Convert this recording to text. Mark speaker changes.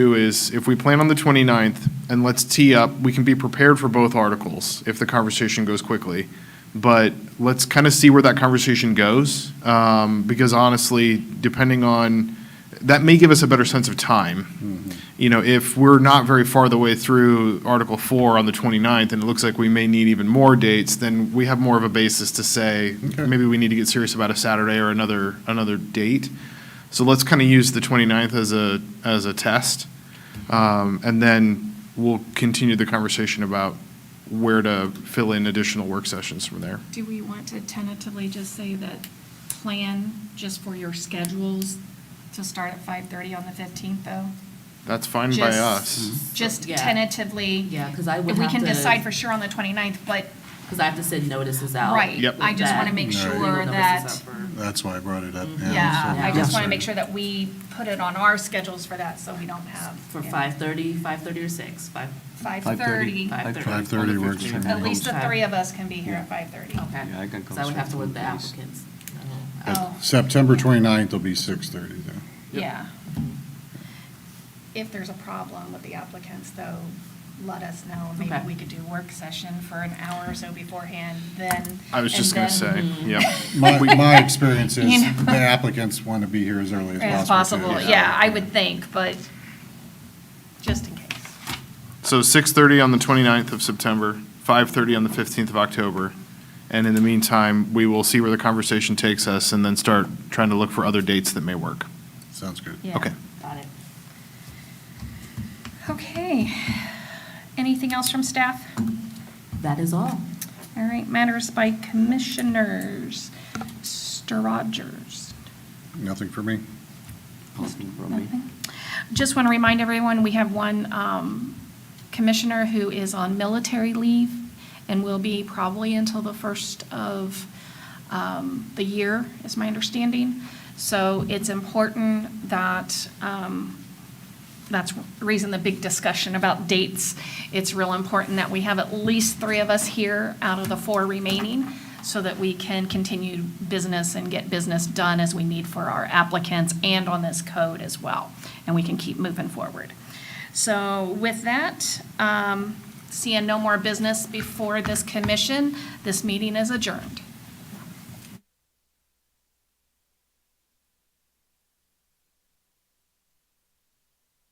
Speaker 1: do is, if we plan on the 29th, and let's tee up, we can be prepared for both articles if the conversation goes quickly. But let's kind of see where that conversation goes, um, because honestly, depending on, that may give us a better sense of time. You know, if we're not very far the way through Article 4 on the 29th, and it looks like we may need even more dates, then we have more of a basis to say, maybe we need to get serious about a Saturday or another, another date. So let's kind of use the 29th as a, as a test. Um, And then we'll continue the conversation about where to fill in additional work sessions from there.
Speaker 2: Do we want to tentatively just say that plan just for your schedules to start at 5:30 on the 15th, though?
Speaker 1: That's fine by
Speaker 2: Just-
Speaker 1: us.
Speaker 2: Just
Speaker 3: Yeah.
Speaker 2: tentatively?
Speaker 3: Yeah, 'cause I would
Speaker 2: We
Speaker 3: have
Speaker 2: can
Speaker 3: to-
Speaker 2: decide for sure on the 29th, but,
Speaker 3: Because I have to send notices out.
Speaker 2: right.
Speaker 1: Yep.
Speaker 2: I just want to
Speaker 3: That-
Speaker 2: make
Speaker 4: Right.
Speaker 2: sure
Speaker 3: Notices
Speaker 2: that,
Speaker 3: out for-
Speaker 4: That's why I brought it up.
Speaker 2: yeah,
Speaker 3: Yeah.
Speaker 2: I just want to
Speaker 4: Yeah.
Speaker 2: make sure that we put it on our schedules for that, so we don't have.
Speaker 3: For
Speaker 2: yeah,
Speaker 3: 5:30, 5:30 or 6? 5?
Speaker 2: 5:30.
Speaker 4: 5:30 works for me.
Speaker 2: At least the
Speaker 3: Okay.
Speaker 2: three of us can be here at 5:30.
Speaker 3: Okay.
Speaker 5: Yeah, I can come
Speaker 3: So I would have to work
Speaker 5: straight from
Speaker 3: the
Speaker 5: the place.
Speaker 3: applicants. Oh,
Speaker 4: But
Speaker 2: Oh.
Speaker 4: September 29th will be 6:30 though.
Speaker 2: Yeah. If there's a problem with the applicants, though, let us know. Maybe
Speaker 3: Okay.
Speaker 2: we could do work session for an hour or so beforehand, then.
Speaker 1: I was just
Speaker 2: and
Speaker 1: going to say,
Speaker 2: then- Hmm.
Speaker 1: yep.
Speaker 4: My, my experience is
Speaker 2: You know.
Speaker 4: the applicants want to be here as early
Speaker 2: As
Speaker 4: as possible.
Speaker 2: possible,
Speaker 4: too.
Speaker 2: yeah, I would think, but just in case.
Speaker 1: So 6:30 on the 29th of September, 5:30 on the 15th of October. And in the meantime, we will see where the conversation takes us and then start trying to look for other dates that may work.
Speaker 4: Sounds good.
Speaker 3: Yeah,
Speaker 1: Okay.
Speaker 3: Got it.
Speaker 2: Okay. Anything else from staff?
Speaker 3: That is all.
Speaker 2: All right, matters by commissioners. Mr. Rogers.
Speaker 4: Nothing for me?
Speaker 5: Nothing from me.
Speaker 2: Nothing. Just want to remind everyone, we have one um, commissioner who is on military leave and will be probably until the first of um, the year, is my understanding. So it's important that, um, that's the reason the big discussion about dates. It's real important that we have at least three of us here out of the four remaining so that we can continue business and get business done as we need for our applicants and on this code as well. And we can keep moving forward. So with that, um, seeing no more business before this commission, this meeting is adjourned.